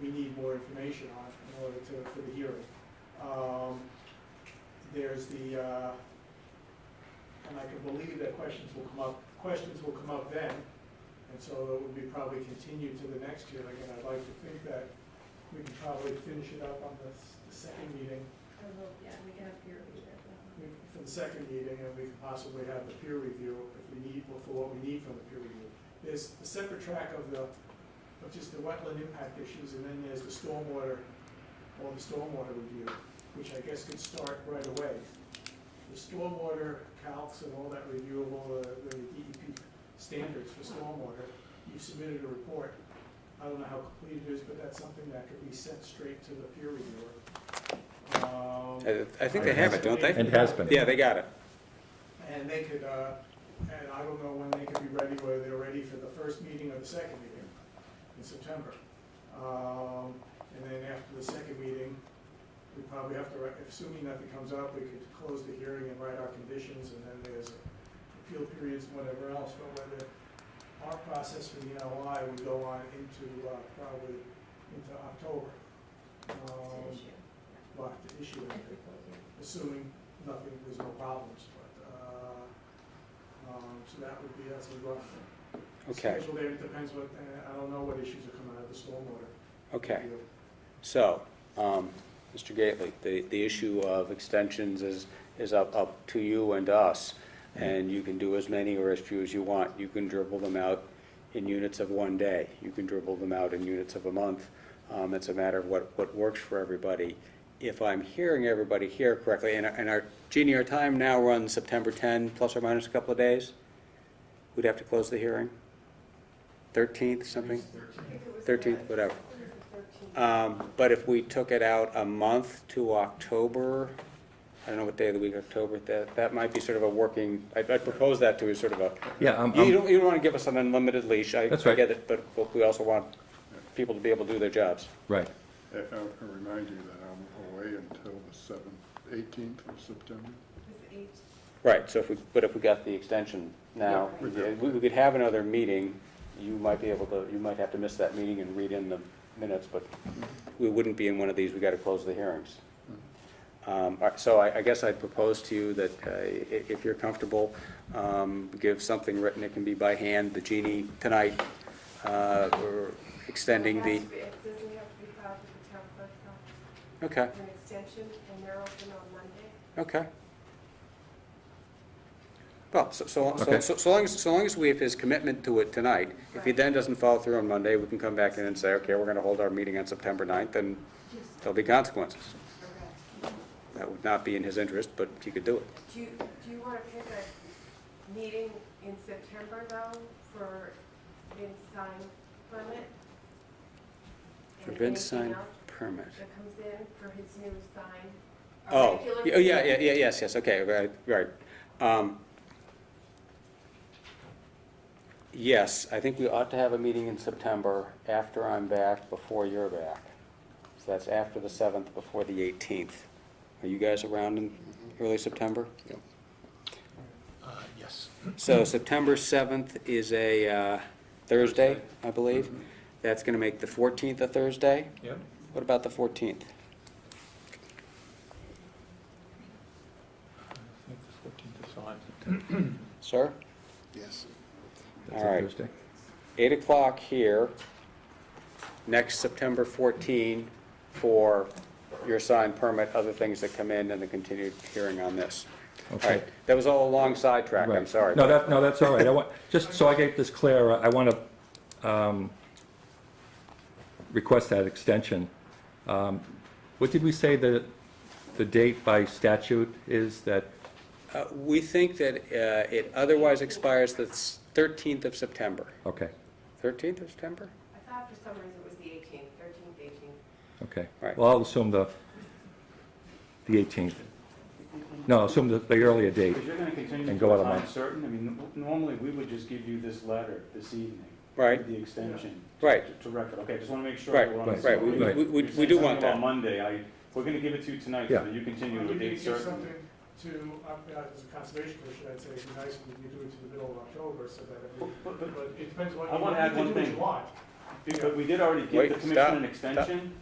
we need more information on in order to, for the hearing. Um, There's the, uh, and I can believe that questions will come up, questions will come up then, and so it would be probably continued to the next hearing, and I'd like to think that we can probably finish it up on the, s- the second meeting, I will, yeah, we can have peer review there. but- we- for the second meeting, and we can possibly have the peer review if we need, for what we need from the peer review. There's a separate track of the, of just the wetland impact issues, and then there's the stormwater, or the stormwater review, which I guess could start right away. The stormwater calcs and all that review of all the, the DEP standards for stormwater, you submitted a report. I don't know how complete it is, but that's something that could be sent straight to the peer reviewer. Um, I I think they have it, don't they? And has been. Yeah, they got it. and they could, uh, and I don't know when they could be ready, whether they're ready for the first meeting or the second meeting in September. Um, and then after the second meeting, we probably have to, write- assuming nothing comes up, we could close the hearing and write our conditions, and then there's appeal periods, and whatever else, but whether our process for the NOI would go on into, uh, probably into October. It's an Um, issue. but the issue If we close it. assuming nothing, there's no problems, but, uh, um, so that would be, that's a rough Okay, schedule there, it depends what, uh, I don't know what issues are coming out of the stormwater. okay. review. So, um, Mr. Gately, the, the issue of extensions is, is up, up to you and us. And you can do as many or as few as you want. You can dribble them out in units of one day. You can dribble them out in units of a month. Um, it's a matter of what, what works for everybody. If I'm hearing everybody here correctly, and, our- and our, Jeannie, our time now runs September ten, plus or minus a couple of days? We'd have to close the hearing? Thirteenth, something? Thirteenth, whatever. Um, But if we took it out a month to October, I don't know what day of the week, October, that, that might be sort of a working, I I propose that to you, sort of a, Yeah, I'm, you I'm, don't, you don't want to give us an unlimited leash, I I Um, That's right. get it, but but we also want people to be able to do their jobs. right. I I remind you that I'm away until the seventh, eighteenth of September. Right, so if we, but if we got the extension now, Yeah, we we do. we could have another meeting, you might be able to, you might have to miss that meeting and read in the minutes, but we wouldn't be in one of these, we gotta close the hearings. Um, all right, So I, I guess I'd propose to you that uh, i- if you're comfortable, um, give something written, it can be by hand, the genie tonight, uh, or extending It the, has to be- It doesn't have to be filed with the town clerk's office. okay, It's an extension, and they're open on Monday. okay. Well, so, so, so- Okay. so so long as, so long as we have his commitment to it tonight, if he then doesn't follow through on Monday, we can come back in and say, okay, we're gonna hold our meeting on September 9th, and there'll be consequences. That would not be in his interest, but he could do it. Do you, do you want to pick a meeting in September, though, for Vince sign permit? For And Vince anything sign else permit. That comes in for his new sign? a Oh, regular yeah, yeah, yeah, meeting? yeah, yes, yes, okay, right, right. Um, Yes, I think we ought to have a meeting in September after I'm back, before you're back. So that's after the 7th, before the 18th. Are you guys around in early September? Uh, Yes. So September 7th is a uh, Thursday, I believe. That's going to make the 14th a Thursday. Yep. What about the 14th? I think the fourteenth is fine. Sir? Yes. That's a All right. Thursday. 8 o'clock here, next September 14, for your signed permit, other things that come in, and the continued hearing on this. All Okay. right, that was all a long sidetrack, I'm Right. sorry. No, that, no, that's all right. I want, just so I get this clear, I want to, um, request that extension. Um, What did we say the, the date by statute is that, Uh, We think that uh, it otherwise expires the 13th of September. okay, 13th of September? I thought for some reason it was the 18th, 13th, 18th. okay. Right. Well, I'll assume the, the 18th. No, I'll assume the, the earlier date. Because you're gonna continue And to go out a a time month. certain, I mean, n- normally, we would just give you this letter this evening. Right. with The extension. Right. to- To record, okay, just wanna make sure Right, that we're on the right, same right, we- page. we- we- You're we saying do want something about that. Monday, I, we're gonna give it to you tonight, Yeah. so that you continue to If a you date could give certain. something to, uh, uh, as a conservation commission, I'd say it'd be nice if you do it to the middle of October, so that, it would- But- but- but it depends what, I wanna you add can one do what you thing. want. But we did already give Wait, the stop, commission an stop. extension.